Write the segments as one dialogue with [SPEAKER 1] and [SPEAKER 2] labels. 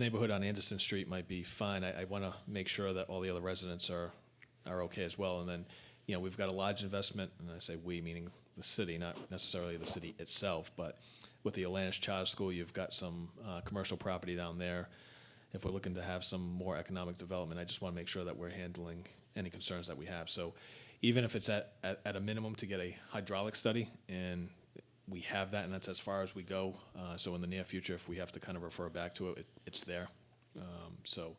[SPEAKER 1] neighborhood on Anderson Street might be fine. I, I want to make sure that all the other residents are, are okay as well. And then, you know, we've got a large investment, and I say we, meaning the city, not necessarily the city itself, but with the Atlantis Charter School, you've got some uh, commercial property down there. If we're looking to have some more economic development, I just want to make sure that we're handling any concerns that we have. So even if it's at, at, at a minimum to get a hydraulic study and we have that, and that's as far as we go. Uh, so in the near future, if we have to kind of refer back to it, it it's there. Um, so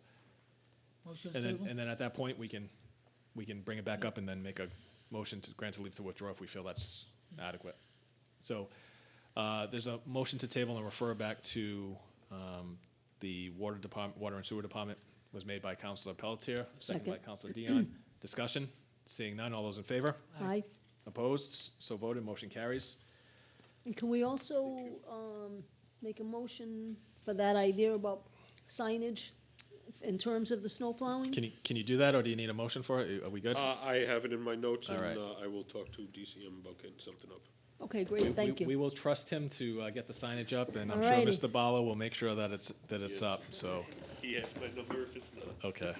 [SPEAKER 2] Motion to
[SPEAKER 1] and then
[SPEAKER 2] table?
[SPEAKER 1] and then at that point, we can we can bring it back up and then make a motion to grant a leave to withdraw if we feel that's adequate. So uh, there's a motion to table and refer back to um, the water department, water and sewer department was made by Councilor Pelletier, second by
[SPEAKER 3] Second.
[SPEAKER 1] Councilor Dion. Discussion. Seeing none, all those in favor?
[SPEAKER 3] Aye.
[SPEAKER 1] Opposed? So voted. Motion carries.
[SPEAKER 3] And can we also, um, make a motion for that idea about signage in terms of the snow plowing?
[SPEAKER 1] Can you, can you do that, or do you need a motion for it? Are we good?
[SPEAKER 4] Uh, I have it in my notes,
[SPEAKER 1] All
[SPEAKER 4] and
[SPEAKER 1] right.
[SPEAKER 4] uh, I will talk to DCM about getting something up.
[SPEAKER 3] Okay,
[SPEAKER 1] We-
[SPEAKER 3] great, thank
[SPEAKER 1] we- We
[SPEAKER 3] you.
[SPEAKER 1] will trust him to uh, get the signage up, and I'm sure
[SPEAKER 3] Alrighty.
[SPEAKER 1] Mr. Bala will make sure that it's, that it's
[SPEAKER 4] Yes.
[SPEAKER 1] up, so,
[SPEAKER 4] He has my number if it's not.
[SPEAKER 1] okay.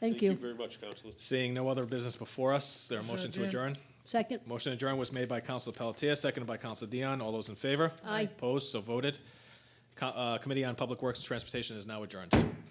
[SPEAKER 3] Thank you.
[SPEAKER 4] very much, Counselor.
[SPEAKER 1] Seeing no other business before us, is there a motion to
[SPEAKER 2] adjourn.
[SPEAKER 1] adjourn?
[SPEAKER 3] Second,
[SPEAKER 1] Motion adjourned was made by Council Pelletier, seconded by Council Dion. All those in favor?
[SPEAKER 3] Aye.
[SPEAKER 1] Opposed, so voted. Co- uh, Committee on Public Works and Transportation is now adjourned.